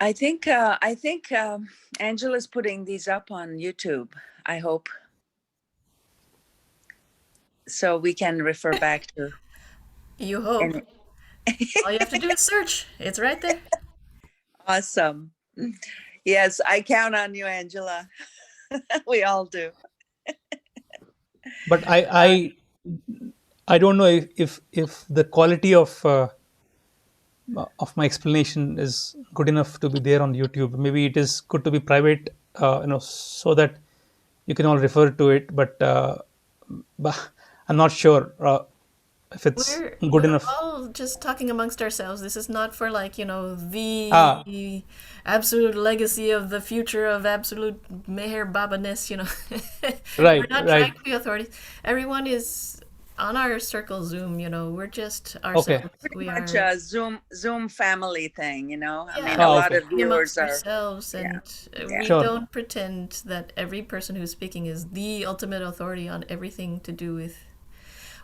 I think uh, I think um, Angela's putting these up on YouTube. I hope so we can refer back to. You hope. All you have to do is search. It's right there. Awesome. Yes, I count on you, Angela. we all do. but i i i don't know if if, if the quality of uh, of my explanation is good enough to be there on youtube maybe it is good to be private uh, you know so that you can all refer to it but uh, bah, i'm not sure uh, if it's We're, good we're enough all just talking amongst ourselves. This is not for like, you know, the Ah. absolute legacy of the future of absolute Meher Babaness, you know. right we're not trying right to be authorities. Everyone is on our circle Zoom, you know. We're just okay ourselves. Pretty We much uh, are a Zoom Zoom family thing, you know. I mean, yeah, a oh we're lot okay of talking viewers amongst are. ourselves Yeah, and uh, yeah, we sure don't pretend that every person who's speaking is the ultimate authority on everything to do with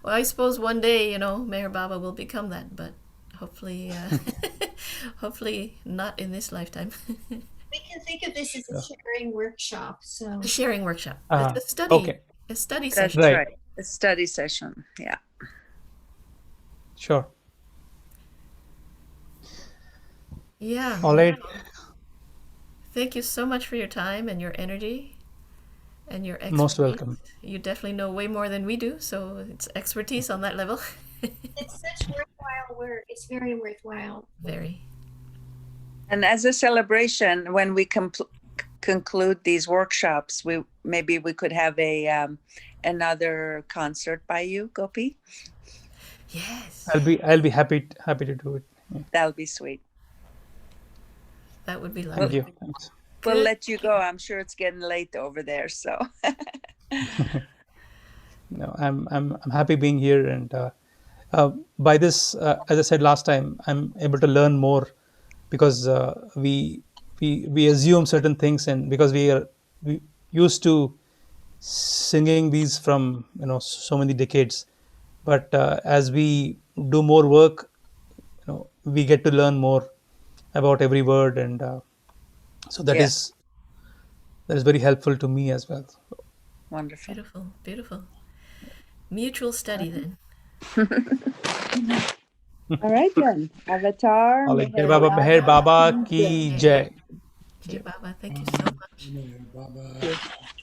well, I suppose one day, you know, Mayor Baba will become that, but hopefully, uh, hopefully not in this lifetime. We can think of this as a yeah. sharing workshop. a So sharing workshop. It's uh, a study, okay a study session. That's right right. A study session. Yeah. sure Yeah. all right Wow. Thank you so much for your time and your energy and your expertise. most welcome You definitely know way more than we do, so it's expertise on that level. it's such worthwhile work. It's very worthwhile. Very. And as a celebration, when we compl- conclude these workshops, we maybe we could have a um, another concert by you, Gopi. Yes. i'll be i'll be happy happy to do it Yeah. That'll be sweet. That would be Well, thank lovely. you thanks we'll Good. let you go. I'm sure it's getting late over there. So no i'm i'm, I'm happy being here and uh, uh, by this uh, as i said last time i'm able to learn more because uh, we we we assume certain things and because we are we used to singing these from you know so many decades but uh, as we do more work you know we get to learn more about every word and uh, so that yeah, is that is very helpful to me as well wonderful. Beautiful, beautiful. Mutual study then. All right then. Avatar, all right Jai Meher baba meher Baba, baba Ki ki Jai. Jay, jai Jay Baba, thank you so much. Thank you.